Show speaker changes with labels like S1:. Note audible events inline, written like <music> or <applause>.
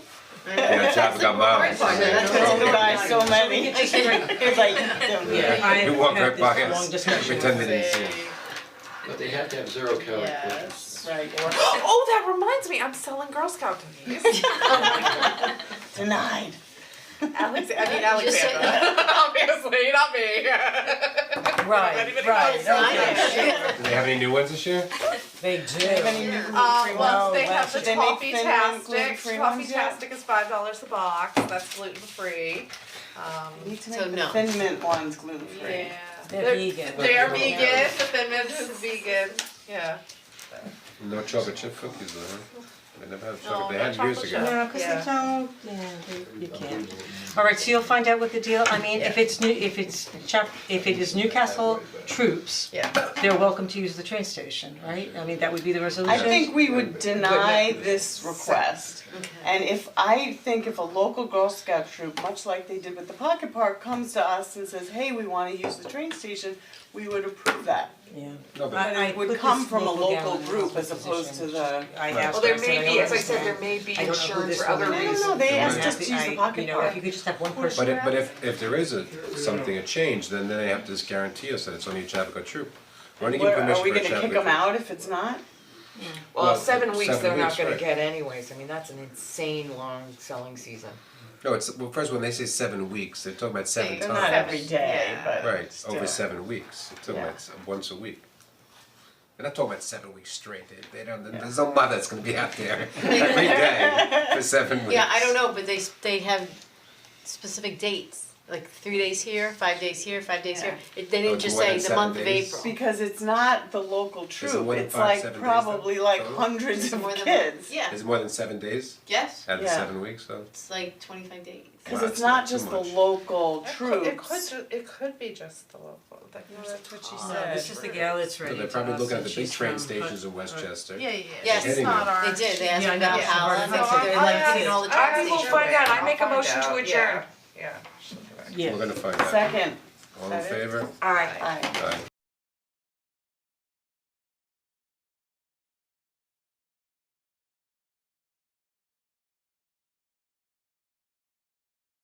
S1: Damn traffic got miles.
S2: Because we buy so many, <laughs> it's like,
S3: Yeah.
S2: don't-
S3: I
S1: We walk right
S3: have
S1: by
S3: this
S1: <laughs>
S3: long
S1: us,
S3: discussion
S1: pretend we didn't see
S2: Say,
S1: it.
S4: But they have to have zero calorie
S2: yes,
S4: cookies.
S2: right, or
S5: Oh, that reminds me, I'm selling Girl Scout cookies.
S2: denied.
S5: Alex, I mean Alexandra. <laughs> Obviously, not me.
S3: Right, right, okay,
S1: Do they have any new ones this year?
S3: they
S2: Many
S3: do.
S2: new
S5: Um,
S2: gluten-free
S5: well,
S2: ones.
S5: they
S3: wow,
S5: have the
S2: should they make
S5: Toffee
S2: thin ones,
S5: Tastic,
S2: gluten-free ones
S5: Toffee
S2: yet?
S5: Tastic is five dollars a box, that's gluten free. Um,
S2: Need to make the thin mint ones gluten-free.
S5: yeah.
S3: They're vegan.
S5: They're vegan, the Thin Mint is vegan, yeah.
S1: No chocolate chip cookies though, huh? They never had
S5: No,
S1: chocolate, they
S5: no
S1: had years
S5: chocolate
S1: ago.
S5: chip.
S3: No, cause
S5: Yeah.
S3: they don't, yeah, they- you can't. Alright, so you'll find out what the deal, I mean, if it's new, if it's Chap, if it is Newcastle troops,
S5: Yeah.
S3: they're welcome to use the train station, right? I mean, that would be the resolution.
S2: I think we would deny this request. And if, I think if a local Girl Scout troop, much like they did with the Pocket Park, comes to us and says, hey, we wanna use the train station, we would approve that.
S3: Yeah.
S1: No, but-
S3: I- I
S2: It would
S3: put
S2: come
S3: this
S2: from a
S3: local gal
S2: local
S3: in
S2: group as
S3: this
S2: opposed to
S3: position.
S2: the,
S3: I asked
S5: Well, there
S3: her, I said,
S5: may
S3: "I
S5: be,
S3: don't
S5: as I said, there
S3: understand."
S5: may be
S3: I don't know who
S5: insurance
S3: this
S5: for other
S3: woman
S2: I
S3: is.
S2: don't
S5: reasons.
S2: know, they asked
S3: Yeah,
S2: us to
S3: I-
S2: use the
S3: You
S2: Pocket
S3: know, if
S2: Park.
S3: you could just have one person.
S1: But if, but if, if there is a, something, a change, then then they have to just guarantee us that it's only a Chappaqua troop. We're only giving
S2: Where,
S1: permission
S2: are
S1: for
S2: we
S1: a Chappaqua troop.
S2: gonna kick them out if it's not?
S1: Well,
S6: Well, seven weeks
S1: seven
S6: they're
S1: weeks,
S6: not gonna
S1: right.
S6: get anyways, I mean, that's an insane long selling season.
S1: No, it's, well, first when they say seven weeks, they're talking about seven
S5: They're
S1: times.
S5: not every
S2: day, but
S1: Right,
S2: still.
S1: over seven weeks, they're talking about s- once a week. They're not talking about seven weeks straight, they, they don't, there's no mother that's gonna be
S7: <laughs>
S1: out there every day for seven weeks.
S7: Yeah, I don't know, but they s- they have specific dates, like three days here, five days here, five days here. It- They
S1: Oh,
S7: didn't
S1: it's
S7: just
S1: more
S7: say
S1: than
S7: the month of
S1: seven days.
S7: April.
S2: Because it's not the local troop,
S1: one in
S2: it's
S1: five,
S2: like
S1: seven days,
S2: probably
S1: though?
S2: like
S1: Total?
S2: hundreds
S7: It's
S2: of
S7: more than-
S2: kids.
S7: Yeah,
S1: Is it more than seven days
S7: yes,
S1: out of the
S2: Yeah.
S1: seven weeks, so?
S7: it's like twenty-five days.
S2: Cause
S1: Wow,
S2: it's
S1: it's
S2: not
S1: not too
S2: just the
S1: much.
S2: local
S5: It could, it could,
S2: troops,
S5: ju- it could be just the local, that, no, that's what she said.
S3: No, this is the gal that's
S1: So
S3: ready
S1: they're
S3: to
S1: probably
S3: us,
S1: looking at
S3: and
S1: the big
S3: she's
S1: train
S3: from
S1: stations in
S3: Hut-
S1: Westchester.
S5: Yeah, yeah, yeah.
S7: Yes,
S5: She's
S1: Anyway.
S5: not our.
S7: They did, they
S3: Yeah, I
S7: asked
S3: know,
S7: about
S3: it's
S7: Allen,
S3: hard to
S7: they
S3: say.
S7: said they're
S3: I-
S7: like giving all the
S5: I-
S7: trains.
S5: I will find out, I make a motion to
S6: out,
S5: adjourn.
S3: Yeah.
S1: We're gonna find out.
S2: second,
S1: All in favor?
S2: aye.
S1: Aye.